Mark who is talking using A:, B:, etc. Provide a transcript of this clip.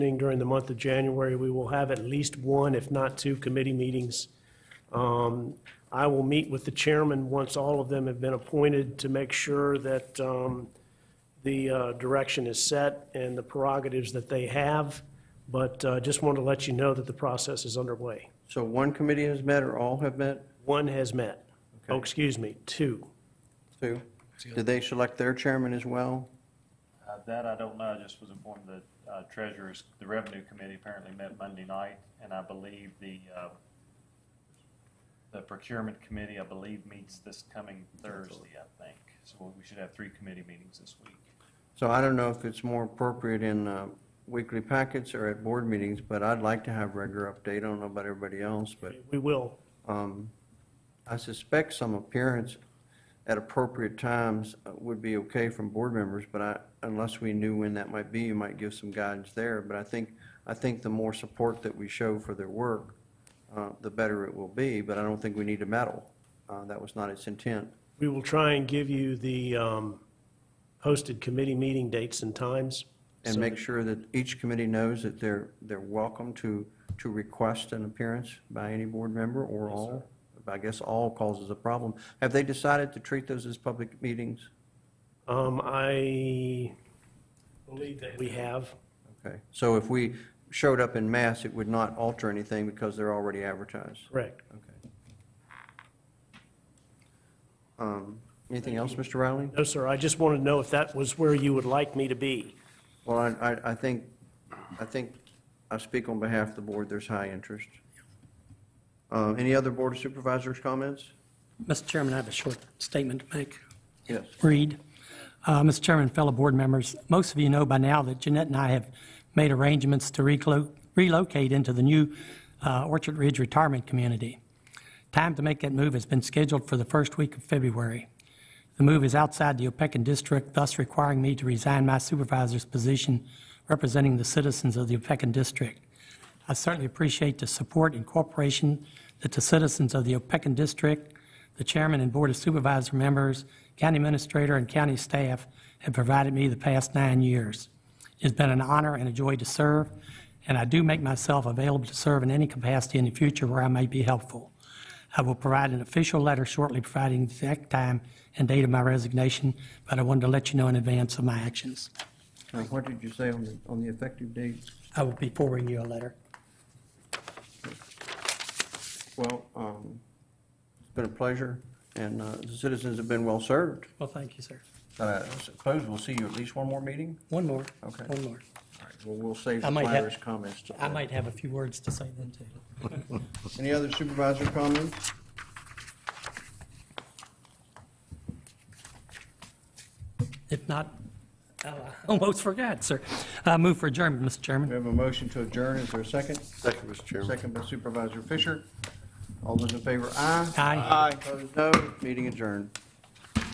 A: meeting during the month of January. We will have at least one, if not two, committee meetings. Um, I will meet with the chairman once all of them have been appointed to make sure that um, the uh, direction is set and the prerogatives that they have, but uh, just wanted to let you know that the process is underway.
B: So one committee has met or all have met?
A: One has met. Oh, excuse me, two.
B: Two? Did they select their chairman as well?
C: Uh, That I don't know, I just was informed that uh, Treasurers, the Revenue Committee apparently met Monday night, and I believe the, uh, the Procurement Committee, I believe, meets this coming Thursday, I think. So we should have three committee meetings this week.
B: So I don't know if it's more appropriate in uh, weekly packets or at board meetings, but I'd like to have regular update. I don't know about everybody else, but
A: We will.
B: um, I suspect some appearance at appropriate times uh, would be okay from board members, but I, unless we knew when that might be, you might give some guidance there. But I think, I think the more support that we show for their work, uh, the better it will be, but I don't think we need to meddle. Uh, That was not its intent.
A: We will try and give you the um, posted committee meeting dates and times.
B: And
A: so
B: make sure that each committee knows that they're, they're welcome to, to request an appearance by any board member or all. I guess all causes a problem. Have they decided to treat those as public meetings?
A: Um, I believe that we have.
B: Okay, so if we showed up in mass, it would not alter anything because they're already advertised?
A: Correct.
B: Okay. Um, Anything else, Mr. Riley?
A: No, sir, I just wanted to know if that was where you would like me to be.
B: Well, I, I- I think, I think I speak on behalf of the board, there's high interest. Uh, Any other Board of Supervisors comments?
D: Mr. Chairman, I have a short statement to make.
B: Yes.
D: Reed. Uh, Mr. Chairman, fellow board members, most of you know by now that Jeanette and I have made arrangements to reclo- relocate into the new uh, Orchard Ridge Retirement Community. Time to make that move has been scheduled for the first week of February. The move is outside the Opequon District, thus requiring me to resign my supervisor's position representing the citizens of the Opequon District. I certainly appreciate the support and cooperation that the citizens of the Opequon District, the chairman and board of supervisor members, county administrator, and county staff have provided me the past nine years. It's been an honor and a joy to serve, and I do make myself available to serve in any capacity in the future where I may be helpful. I will provide an official letter shortly providing the exact time and date of my resignation, but I wanted to let you know in advance of my actions.
B: Now, what did you say on the, on the effective date?
D: I will be forwarding you a letter.
B: Well, um, it's been a pleasure, and uh, the citizens have been well-served.
D: Well, thank you, sir.
B: I suppose we'll see you at least one more meeting?
D: One more.
B: Okay.
D: One more.
B: All right, well, we'll save
D: I
B: the
D: might have-
B: virus comments. to-
D: I might have a few words to say then, too.
B: Any other supervisor comments?
D: If not, I almost forgot, sir. I move for adjournment, Mr.
B: We
D: Chairman.
B: have a motion to adjourn, is there a second?
E: Second, Mr. Chairman.
B: Second by Supervisor Fisher. All those in favor, aye.
D: Aye.
B: Opposed, no. Meeting adjourned.